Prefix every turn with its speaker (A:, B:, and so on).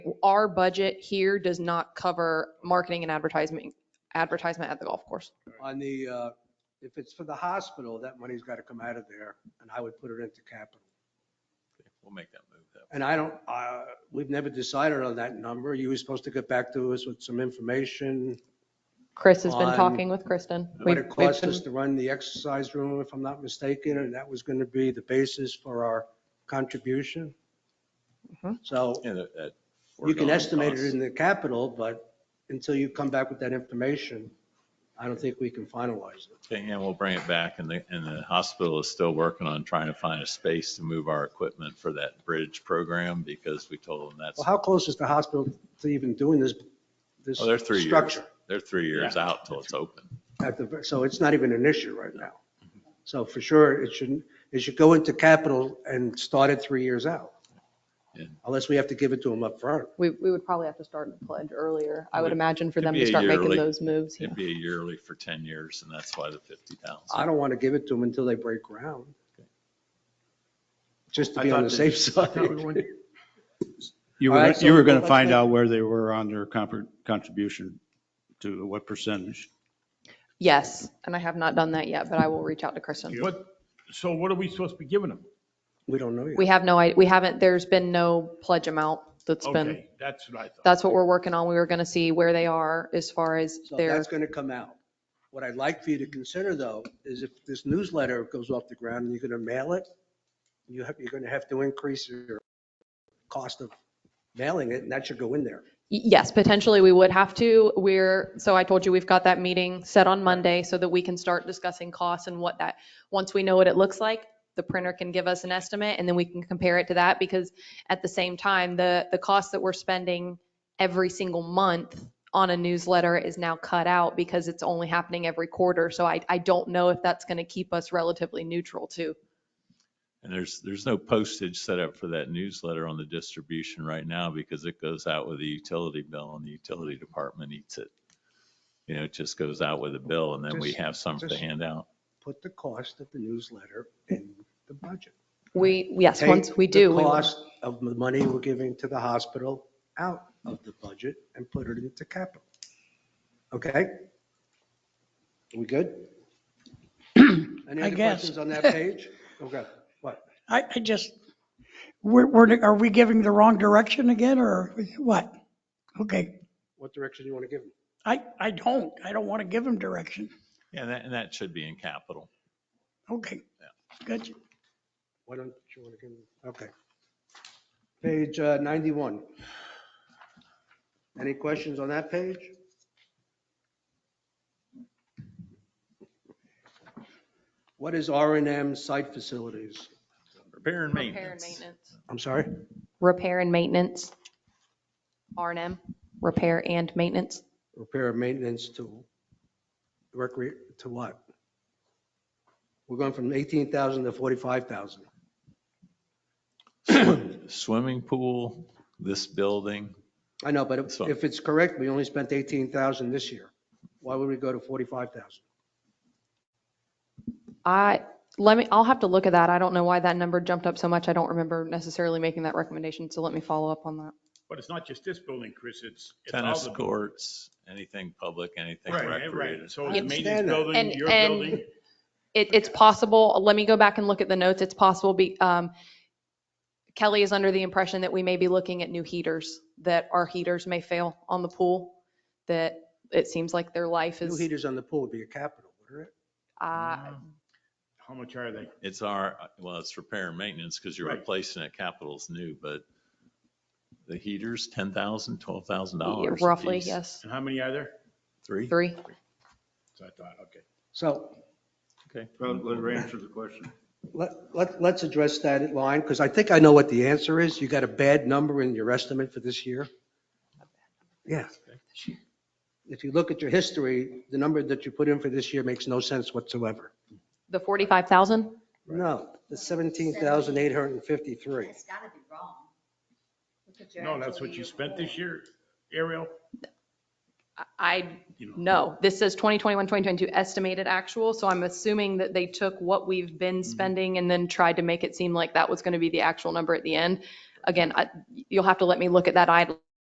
A: our budget here does not cover marketing and advertising, advertisement at the golf course.
B: On the, uh, if it's for the hospital, that money's got to come out of there and I would put it into capital.
C: We'll make that move though.
B: And I don't, uh, we've never decided on that number. You were supposed to get back to us with some information,
A: Chris has been
B: On-
A: talking with Kristen.
B: what
A: We've-
B: it
A: we've
B: cost
A: been-
B: us to run the exercise room, if I'm not mistaken, and that was going to be the basis for our contribution.
A: Mhm.
B: So
C: Yeah, that- that
B: you can
C: foregone
B: estimate it
C: cost.
B: in the capital, but until you come back with that information, I don't think we can finalize it.
C: Okay, And we'll bring it back and the, and the hospital is still working on trying to find a space to move our equipment for that bridge program because we told them that's,
B: Well, how close is the hospital to even doing this, this
C: oh, they're three years.
B: structure?
C: They're three years out till it's open.
B: at the, so it's not even an issue right now. So for sure, it shouldn't, it should go into capital and start it three years out.
C: Yeah.
B: Unless we have to give it to them up front.
A: We, we would probably have to start and pledge earlier, I would
C: It'd
A: imagine, for them
C: be
A: to
C: a
A: start making
C: yearly-
A: those moves. yeah.
C: It'd be a yearly for 10 years and that's why the 50,000.
B: I don't want to give it to them until they break ground. Just to
D: I
B: be on
D: thought
B: the
D: that-
B: safe
D: I
B: side.
D: thought we went-
E: You
B: All
E: were,
B: right, so
E: you were going to
B: let's
E: find
B: go-
E: out where they were on their compr- contribution to what percentage.
A: Yes, and I have not done that yet, but I will reach out to Kristen.
D: What, so what are we supposed to be giving them?
B: We don't know yet.
A: We have no, i- we haven't, there's been no pledge amount that's been,
D: Okay, that's what I thought.
A: that's what we're working on. We were going to see where they are as far as
B: So
A: their,
B: that's going to come out. What I'd like for you to consider though, is if this newsletter goes off the ground and you're going to mail it, you have, you're going to have to increase your cost of mailing it and that should go in there.
A: Y- yes, potentially we would have to. We're, so I told you, we've got that meeting set on Monday so that we can start discussing costs and what that, once we know what it looks like, the printer can give us an estimate and then we can compare it to that because at the same time, the, the cost that we're spending every single month on a newsletter is now cut out because it's only happening every quarter. So I, I don't know if that's going to keep us relatively neutral too.
C: And there's, there's no postage set up for that newsletter on the distribution right now because it goes out with the utility bill and the utility department eats it. You know, it just goes out with a bill and then we
B: Just-
C: have some to
B: just-
C: hand out.
B: put the cost of the newsletter in the budget.
A: We, yes, once we do.
B: Take
A: we
B: the
A: will.
B: cost of the money we're giving to the hospital out of the budget and put it into capital. Okay? We good? Any
F: I
B: other
F: guess.
B: questions on that page? Okay, what?
F: I, I just, we're, we're, are we giving the wrong direction again or what? Okay,
B: What direction do you want to give them?
F: I, I don't, I don't want to give them direction.
C: Yeah, and that, and that should be in capital.
F: Okay, good.
B: Why don't you want to give them? Okay. Page uh, 91. Any questions on that page? What is R and M site facilities?
C: Repair and
A: Repair and
C: maintenance.
A: maintenance.
B: I'm sorry?
A: repair and maintenance. R and M, repair and maintenance.
B: Repair and maintenance to recre, to what? We're going from 18,000 to 45,000.
C: Swimming pool, this building,
B: I know, but if-
C: So-
B: if it's correct, we only spent 18,000 this year. Why would we go to 45,000?
A: I, let me, I'll have to look at that. I don't know why that number jumped up so much. I don't remember necessarily making that recommendation, so let me follow up on that.
D: But it's not just this building, Chris, it's. it's all
C: tennis
D: the-
C: courts, anything public, anything
D: Right, right,
C: recreated.
D: right. So the
A: Yep.
D: maintenance
A: And-
D: building, your
A: and-
D: building,
A: It, it's possible, let me go back and look at the notes. It's possible be, um, Kelly is under the impression that we may be looking at new heaters, that our heaters may fail on the pool, that it seems like their life
B: New
A: is,
B: heaters on the pool would be a capital, wouldn't it?
A: uh,
D: how much are they?
C: It's our, well, it's repair and maintenance because you're
D: Right.
C: replacing it, capital's new, but the heaters, ten thousand, twelve thousand dollars.
A: roughly, yes,
D: And how many are there?
C: Three?
A: three.
D: So I thought, okay.
B: So
C: Okay.
G: Well, let her answer the question.
B: let, let, let's address that line, because I think I know what the answer is. You got a bad number in your estimate for this year? Yeah. If you look at your history, the number that you put in for this year makes no sense whatsoever.
A: The 45,000?
B: No, the 17,853.
H: It's gotta be wrong. Look at your
D: No, that's
H: actual
D: what you
H: year
D: spent
H: before.
D: this year, Ariel?
A: I
D: You know,
A: No, this says 2021, 2022 estimated actual, so I'm assuming that they took what we've been
D: Mm-hmm.
A: spending and then tried to make it seem like that was going to be the actual number at the end. Again, I- you'll have to let me look at that